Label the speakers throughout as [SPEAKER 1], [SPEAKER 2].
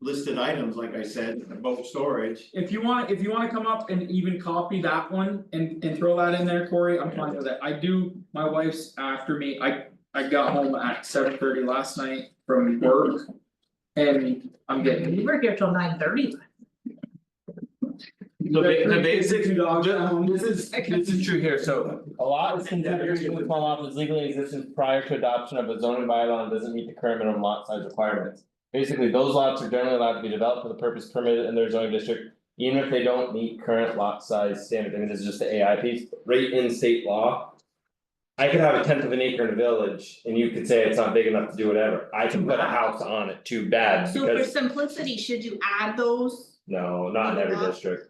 [SPEAKER 1] listed items, like I said, the boat storage.
[SPEAKER 2] If you wanna, if you wanna come up and even copy that one and and throw that in there, Corey, I'm fine with it, I do, my wife's after me, I. I got home at seven thirty last night from work. And
[SPEAKER 3] You
[SPEAKER 2] I'm getting.
[SPEAKER 3] were here till nine thirty.
[SPEAKER 4] The ba- the basic,
[SPEAKER 2] Two dogs at home.
[SPEAKER 4] this is, this is true here, so a lot of consideration to fall off is legally existent prior to adoption of a zoning bylaw and doesn't meet the current minimum lot size requirements. Basically, those lots are generally allowed to be developed for the purpose permitted in their zoning district, even if they don't meet current lot size standards, I mean, this is just the AI piece, right in state law. I could have a tenth of an acre in a village and you could say it's not big enough to do whatever, I can put a house on it, too bad,
[SPEAKER 5] So for
[SPEAKER 4] because,
[SPEAKER 5] simplicity, should you add those?
[SPEAKER 4] no, not in every district.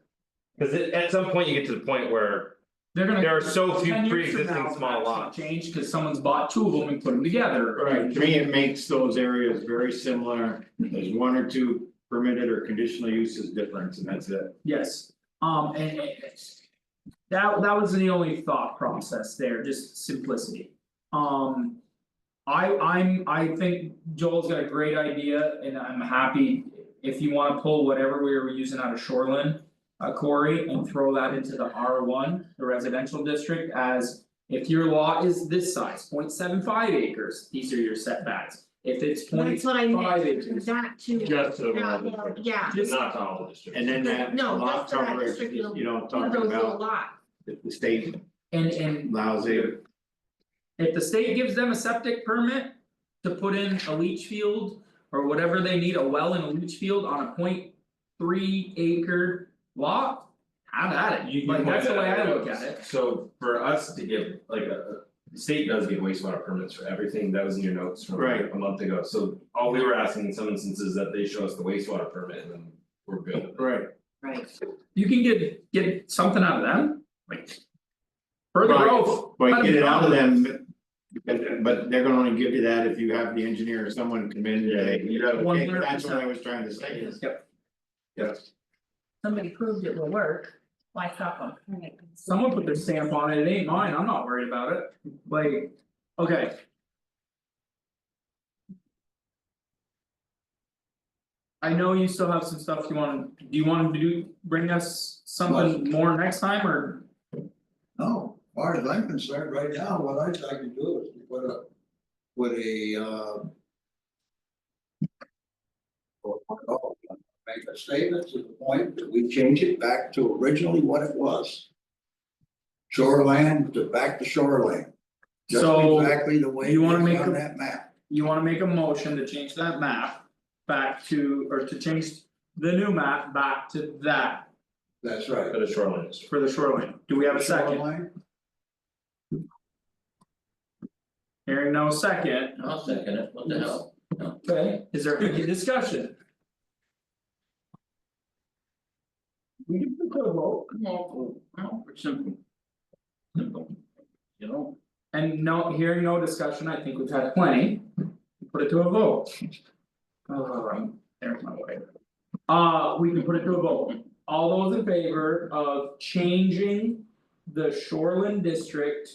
[SPEAKER 4] Cause it, at some point you get to the point where
[SPEAKER 2] They're gonna.
[SPEAKER 4] There are so few
[SPEAKER 2] 10 years from
[SPEAKER 4] pre-existing
[SPEAKER 2] now,
[SPEAKER 4] small
[SPEAKER 2] that's gonna
[SPEAKER 4] lots.
[SPEAKER 2] Change, cause someone's bought two of them and put them together.
[SPEAKER 1] To me, it makes those areas very similar, there's one or two permitted or conditional uses difference, and that's it.
[SPEAKER 2] Yes, um and it's- That that was the only thought process there, just simplicity. Um. I I'm I think Joel's got a great idea and I'm happy if you wanna pull whatever we were using out of Shoreland. Uh Corey and throw that into the R one, the residential district as. If your lot is this size, 0.75 acres, these are your setbacks. If it's point
[SPEAKER 5] That's what I
[SPEAKER 2] five
[SPEAKER 5] meant,
[SPEAKER 2] acres.
[SPEAKER 5] that too.
[SPEAKER 4] Just to the rural
[SPEAKER 5] Yeah,
[SPEAKER 4] district.
[SPEAKER 5] Yeah,
[SPEAKER 2] Just
[SPEAKER 4] Not to all districts.
[SPEAKER 1] And then that
[SPEAKER 5] No,
[SPEAKER 1] lot
[SPEAKER 5] that's what I
[SPEAKER 1] coverage,
[SPEAKER 5] said,
[SPEAKER 1] you
[SPEAKER 5] you'll-
[SPEAKER 1] you know,
[SPEAKER 5] one of
[SPEAKER 1] talking
[SPEAKER 5] those little
[SPEAKER 1] about
[SPEAKER 5] lots.
[SPEAKER 1] if the state
[SPEAKER 2] and and
[SPEAKER 1] allows it.
[SPEAKER 2] If the state gives them a septic permit to put in a leach field or whatever they need, a well and a leach field on a point three acre lot. Have at it,
[SPEAKER 6] You- you
[SPEAKER 2] like that's the
[SPEAKER 6] pointed
[SPEAKER 2] way
[SPEAKER 6] out
[SPEAKER 2] I
[SPEAKER 6] that
[SPEAKER 2] look at
[SPEAKER 6] was-
[SPEAKER 2] it,
[SPEAKER 6] So for us to give like a, the state does give wastewater permits for everything, that was in your notes from
[SPEAKER 1] Right.
[SPEAKER 6] a month ago, so all we were asking in some instances that they show us the wastewater permit and then we're good.
[SPEAKER 1] Right.
[SPEAKER 5] Right.
[SPEAKER 2] you can get get something out of them, like. Further
[SPEAKER 1] Right.
[SPEAKER 2] growth,
[SPEAKER 1] But get it out of them, but but they're gonna only give you that if you have the engineer or someone come in
[SPEAKER 6] Yeah,
[SPEAKER 1] today.
[SPEAKER 6] you gotta-
[SPEAKER 2] One hundred
[SPEAKER 1] That's what
[SPEAKER 2] percent.
[SPEAKER 1] I was trying to say is.
[SPEAKER 2] Yep.
[SPEAKER 1] Yes.
[SPEAKER 3] Somebody proved it will work, why stop them?
[SPEAKER 2] someone put their stamp on it, it ain't mine, I'm not worried about it, like, okay. I know you still have some stuff you wanna, do you wanna do, bring us something more next time, or?
[SPEAKER 7] No, as far as I'm concerned, right now, what I'd like to do is to put a, put a, uh. Make a statement to the point that we change it back to originally what it was. Shoreland to back to shoreland. Just
[SPEAKER 2] So,
[SPEAKER 7] exactly the way
[SPEAKER 2] you wanna
[SPEAKER 7] it's
[SPEAKER 2] make
[SPEAKER 7] on
[SPEAKER 2] a-
[SPEAKER 7] that map.
[SPEAKER 2] You wanna make a motion to change that map back to, or to change the new map back to that
[SPEAKER 7] That's right.
[SPEAKER 6] For the shoreline district.
[SPEAKER 2] for the shoreline, do we have a second?
[SPEAKER 7] Shoreline,
[SPEAKER 2] Hearing no second,
[SPEAKER 8] I'll second it, what the hell?
[SPEAKER 2] okay, is there any discussion? We can put a vote. Oh,
[SPEAKER 8] Well, well, it's simple. Simple. You know,
[SPEAKER 2] And no, hearing no discussion, I think we've had plenty. Put it to a vote. Um, there's my way. Uh, we can put it to a vote. All those in favor of changing the Shoreland district.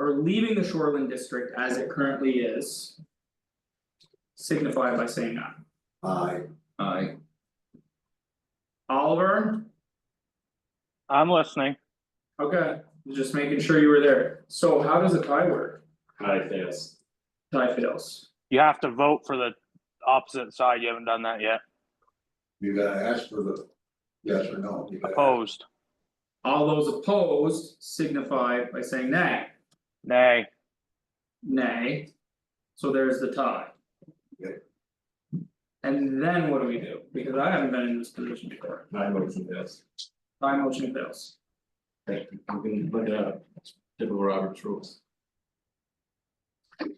[SPEAKER 2] Or leaving the Shoreland district as it currently is. Signify by saying aye.
[SPEAKER 7] Aye,
[SPEAKER 8] I,
[SPEAKER 2] Oliver,
[SPEAKER 9] I'm listening.
[SPEAKER 2] okay, just making sure you were there. So how does a tie work?
[SPEAKER 6] High fails.
[SPEAKER 2] Tie fails.
[SPEAKER 9] You have to vote for the opposite side. You haven't done that yet.
[SPEAKER 7] you gotta ask for the, yes or no. You gotta-
[SPEAKER 2] Oh,
[SPEAKER 9] Opposed.
[SPEAKER 2] All those opposed signify by saying nay.
[SPEAKER 9] Nay.
[SPEAKER 2] Nay. So there's the tie.
[SPEAKER 7] Okay.
[SPEAKER 2] And then what do we do? Because I haven't been in this position before.
[SPEAKER 6] My motion fails.
[SPEAKER 2] My motion fails.
[SPEAKER 6] Thank you, we can look it up, typical Robert's rules.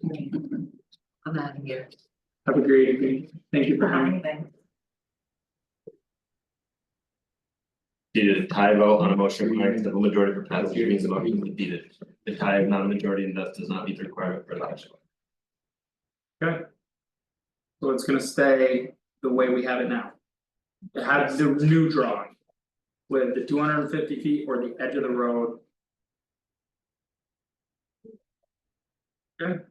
[SPEAKER 3] I'm out of here.
[SPEAKER 2] Have a great evening. Thank you for coming.
[SPEAKER 4] Did a tie vote on a motion requiring the majority for passage means the motion is defeated. The tie of non-majority and thus does not meet the requirement for election.
[SPEAKER 2] So it's gonna stay the way we have it now. It had the new drawing. With the two hundred and fifty feet or the edge of the road. Okay.